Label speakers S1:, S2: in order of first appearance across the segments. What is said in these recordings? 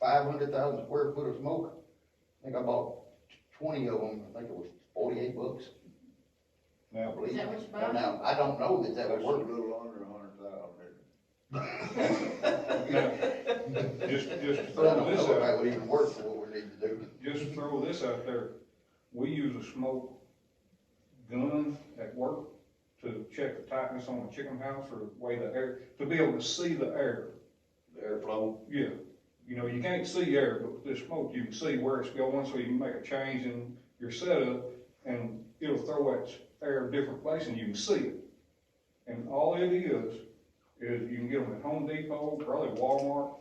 S1: five hundred thousand square foot of smoke. I think I bought twenty of them, I think it was forty-eight bucks, I
S2: Now,
S1: believe.
S3: Is that what you
S1: Now,
S3: bought?
S1: Now, I don't know that that
S2: that's
S1: would
S2: a
S1: work.
S2: little under a hundred thousand. Now, Just, just
S1: But I
S2: throw
S1: don't
S2: this
S1: know if that
S2: out,
S1: would even work for what we need to do.
S2: just throw this out there. We use a smoke gun at work to check the tightness on a chicken house or the way the air, to be able to see the air.
S4: Airflow,
S2: Yeah, you know, you can't see air, but with this smoke, you can see where it's going, so you can make a change in your setup, and it'll throw that air a different place, and you can see it. And all it is, is you can get them at Home Depot, probably Walmart,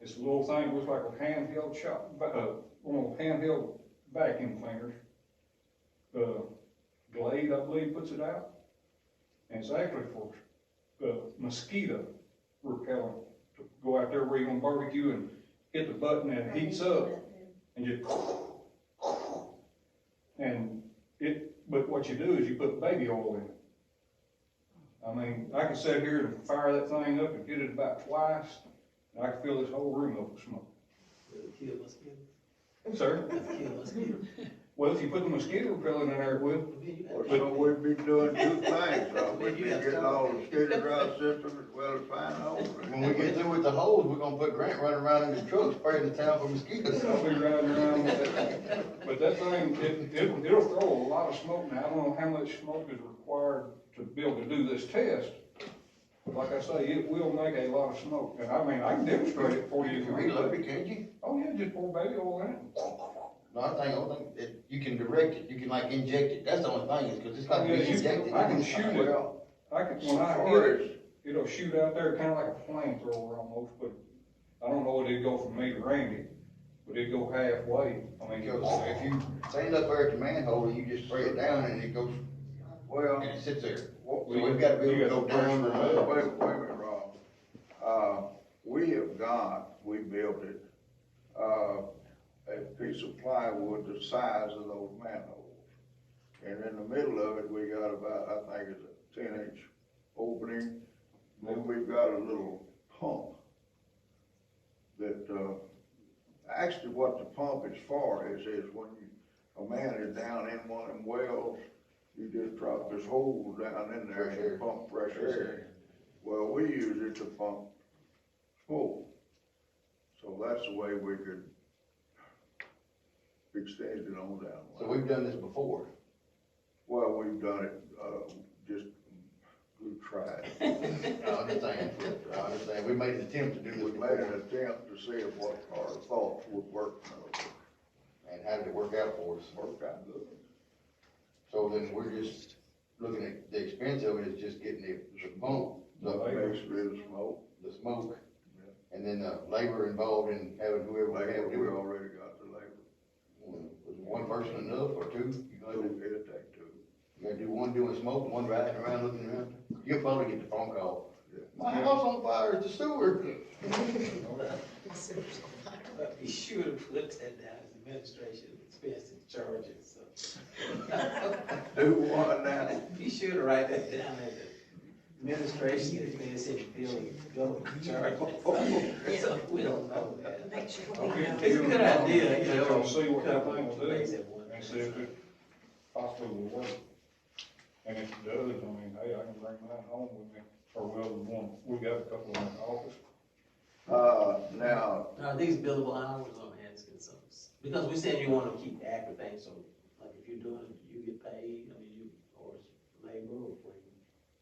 S2: it's a little thing, looks like a handheld shot, uh, one of those handheld vacuum cleaners. Uh, Glade, I believe, puts it out, and it's actually for, uh, mosquito repellent to go out there where you're gonna barbecue and hit the button and it heats up and just and it, but what you do is you put baby oil in it. I mean, I can sit here and fire that thing up and hit it about twice, and I can fill this whole room up with smoke.
S5: Kill mosquitoes,
S2: Sir,
S5: kill mosquitoes.
S2: well, if you put the mosquito repellent in there, it will.
S5: Then you
S2: Or
S5: got-
S2: so
S4: so we'd be doing two things,
S5: though.
S4: we'd be getting all the scooter drive system as well as fine
S1: When we get through with the hose, we're gonna put Grant running around in his truck spraying the town for mosquitoes.
S2: I'll be riding around with that. But that thing, it, it'll, it'll throw a lot of smoke now. I don't know how much smoke is required to be able to do this test. Like I say, it will make a lot of smoke, and I mean, I can demonstrate it for you.
S1: You
S2: if
S1: can
S2: you
S1: reload
S2: want.
S1: it, can't you?
S2: Oh, yeah, just pour baby oil in it.
S1: No, I think, I don't think, that you can direct it, you can like inject it, that's the only thing, is cause it's like
S2: Yeah,
S1: being
S2: you-
S1: injected.
S2: I can shoot it.
S4: Well,
S2: I could,
S4: so
S2: when I
S4: far
S2: hit it,
S4: as
S2: it'll shoot out there kinda like a flamethrower almost, but I don't know if it'd go from me to Randy, but it'd go halfway. I mean, it
S1: Because
S2: was,
S1: if you stand up there at the manhole, and you just spray it down and it goes,
S4: Well,
S1: and it sits there.
S4: what
S1: So
S4: we.
S1: we've gotta be able to go
S2: You gotta
S1: down or
S4: Wait,
S1: up.
S4: wait, wait, Rob. Uh, we have got, we built it, uh, a piece of plywood the size of those manholes. And in the middle of it, we got about, I think it's a ten inch opening, then we've got a little pump that, uh, actually what the pump is for is, is when you, a man is down in one of them wells, you just drop this hole down in there and you pump fresh air. Well, we use it to pump smoke. So that's the way we could extend it on down.
S1: So we've done this before.
S4: Well, we've done it, uh, just, we tried.
S1: I understand, I understand, we made an attempt to do
S4: We
S1: this
S4: made
S1: before,
S4: an attempt to see if what our thoughts would work, no,
S1: and how did it work out for us?
S4: worked out good.
S1: So then we're just looking at, the expense of it is just getting the, the pump, the,
S4: Basically, the smoke,
S1: the smoke, and then the labor involved in having whoever we
S4: labor,
S1: have
S4: we
S1: do it.
S4: already got the labor,
S1: Was one person enough, or two? You gonna do,
S4: it'll take two.
S1: you gonna do one doing smoke, one riding around looking around? You'll probably get the phone call.
S4: Yeah.
S1: My house on fire, it's the sewer.
S5: You should have put that down as administration expense and charges, so.
S4: Do one now.
S5: You should have write that down as administration expense and building, building charges. So We don't know that.
S3: Make sure
S2: I'll
S3: we
S2: get
S3: know.
S5: It's a good idea, you know.
S2: I'll see what that
S5: couple
S2: thing will do.
S5: things at once.
S2: and see if it possibly will work. And if it does, I mean, hey, I can bring mine home with me, or we'll, one, we got a couple in the office.
S4: Uh, now,
S5: Are these billable hours on asking something? Because we said you wanna keep active things, so like if you're doing, it, you get paid, I mean, you, or it's labor or free.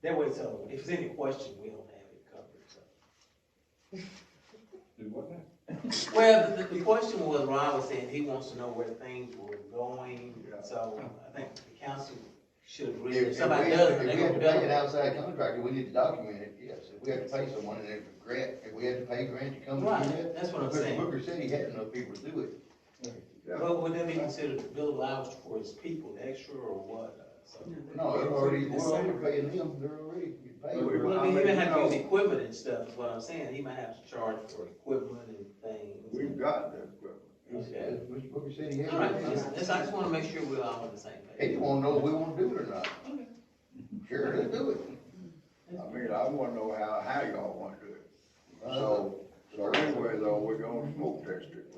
S5: That way, so if there's any question, we don't have it covered, so.
S2: Do what now?
S5: Well, the, the question was, Ron was saying he wants to know where things were going,
S4: Yeah.
S5: so I think the council should
S1: If-
S5: agree,
S1: If we
S5: if somebody
S1: have-
S5: does,
S1: if
S5: they
S1: we have to pay
S5: gonna bill
S1: an
S5: them.
S1: outside contractor, we need to document it, yes. If we have to pay someone, and if Grant, if we have to pay Grant to come and do that.
S5: Right, that's what I'm
S1: But
S5: saying.
S1: Booker said he had enough people to do it.
S4: yeah,
S5: But would that be considered billable hours for his people, extra or what? So-
S1: No, they're already, we're already paying them, they're already getting paid.
S5: Well, he might have to use equipment and stuff, is what I'm saying, he might have to charge for equipment and things.
S4: we've got the equipment.
S5: Okay.
S1: Mr. Booker said he had.
S5: All right,
S1: enough.
S5: just- just- I just wanna make sure we're all on the same
S1: He just
S5: page.
S1: wanna know if we wanna do it or not. Sure, let's do it.
S4: I mean, I wanna know how, how y'all wanna do it. So, So anyway, though, we're gonna smoke test it.